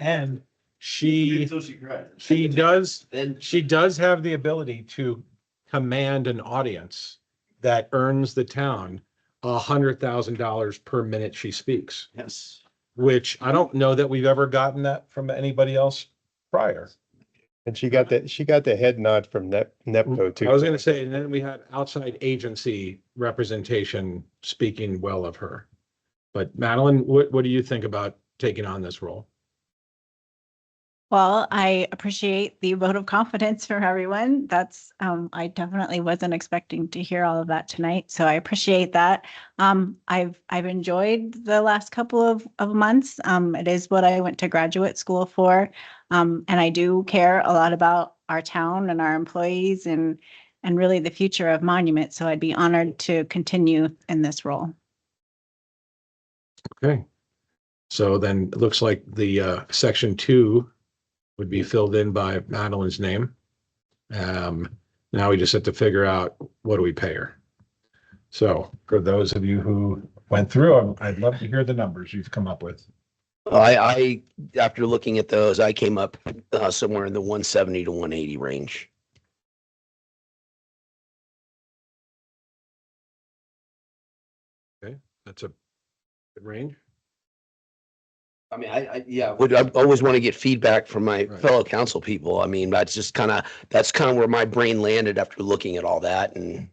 and she, Until she cries. she does, Then she does have the ability to command an audience that earns the town a hundred thousand dollars per minute she speaks, yes. which I don't know that we've ever gotten that from anybody else prior. And she got that, she got the head nod from Nep, Nepco too. I was gonna say, and then we had outside agency representation speaking well of her. But Madeline, what, what do you think about taking on this role? Well, I appreciate the vote of confidence from everyone. That's, um, I definitely wasn't expecting to hear all of that tonight, so I appreciate that. Um, I've, I've enjoyed the last couple of, of months. Um, it is what I went to graduate school for. Um, and I do care a lot about our town and our employees and, and really the future of Monument, so I'd be honored to continue in this role. Okay. So then it looks like the uh, section two would be filled in by Madeline's name. Um, now we just have to figure out what do we pay her? So for those of you who went through, I'm- I'd love to hear the numbers you've come up with. I, I, after looking at those, I came up uh, somewhere in the one seventy to one eighty range. That's a good range. I mean, I, I, yeah. Would, I always want to get feedback from my Right. fellow council people. I mean, that's just kind of, that's kind of where my brain landed after looking at all that and.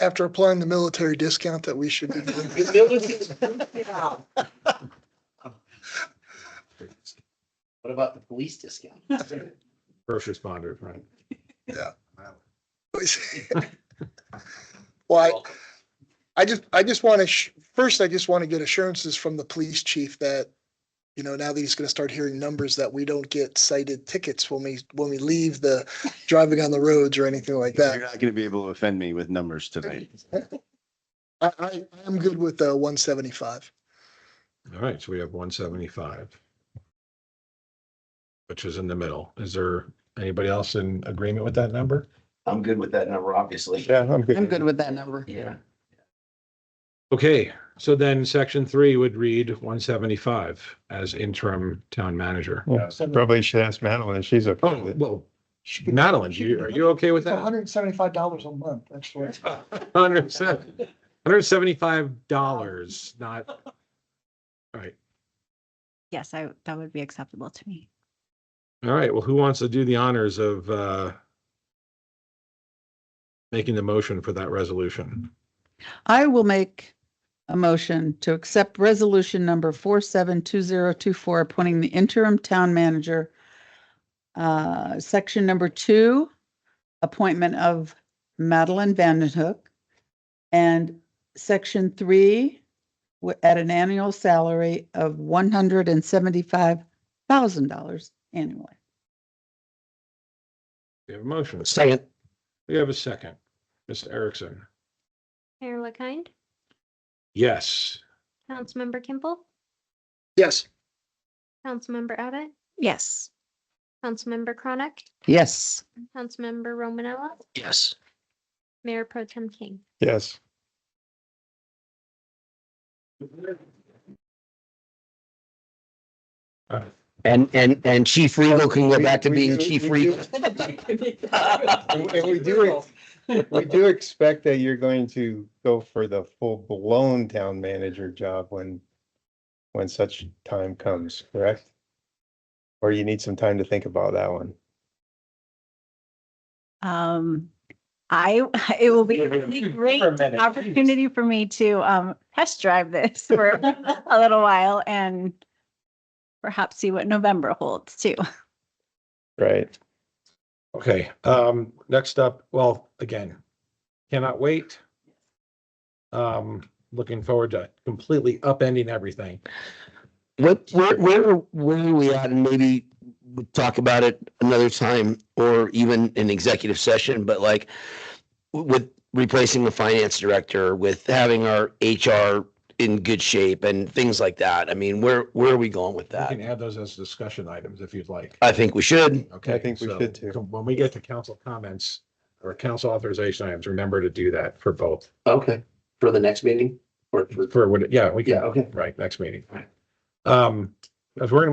after applying the military discount that we should. be- What about the police discount? First responders, right? Well, I I just, I just want to, first, I just want to get assurances from the police chief that, you know, now that he's going to start hearing numbers that we don't get cited tickets when we, when we leave the driving on the roads or anything like You're that. not gonna be able to offend me with numbers tonight. I, I, I am good with uh one seventy-five. All right, so we have one seventy-five. Which is in the middle. Is there anybody else in agreement with that number? I'm good with that number, obviously. Yeah, I'm good. I'm good with that number. Yeah. Okay, so then section three would read one seventy-five as interim town manager. Yeah, Probably should ask Madeline. if She's a. Oh, well, Madeline, you, are you okay with that? hundred and seventy-five dollars a month, that's what. Hundred seventy-five dollars, not. All right, Yes, I, that would be acceptable to me. all right. Well, who wants to do the honors of, uh, making the motion for that resolution? I will make a motion to accept resolution number four seven two zero two four, appointing the interim town manager. Uh, section number two, appointment of Madeline Vandenhook. And section three, wi- at an annual salary of one hundred and seventy-five thousand dollars annually. We have a motion. Second, We have a second. Ms. Erickson. Mayor LaKind, Yes. Councilmember Kimball, Yes, Councilmember Abbott, Yes. Councilmember Chronic, Yes. Councilmember Romanella, yes. Mayor Pro Tem King. Yes. And, and, and Chief Regal can go back to We- we being do- Chief we do- Regal. And and we do, ex- we do expect that you're going to go for the full-blown town manager job when, when such time comes, correct? Or you need some time to think about that one. Um, I, it will be a really great opportunity for me to, um, test drive this for a little while and perhaps see what November holds too. Right. Okay, um, next up, well, again, cannot wait. Um, looking forward to completely upending everything. What, where, where, where are we at? And maybe we'll talk about it another time or even in executive session, but like with replacing the finance director, with having our HR in good shape and things like that. I mean, where, where are we going with Uh, You that? can add those as discussion items if you'd like. I think we should. Okay. I think we so should too. com- When we get to council comments or council authorization items, remember to do that for both. Okay. For the next meeting or For what, yeah, we can, okay. right, next meeting. Right. Um, Because we're gonna move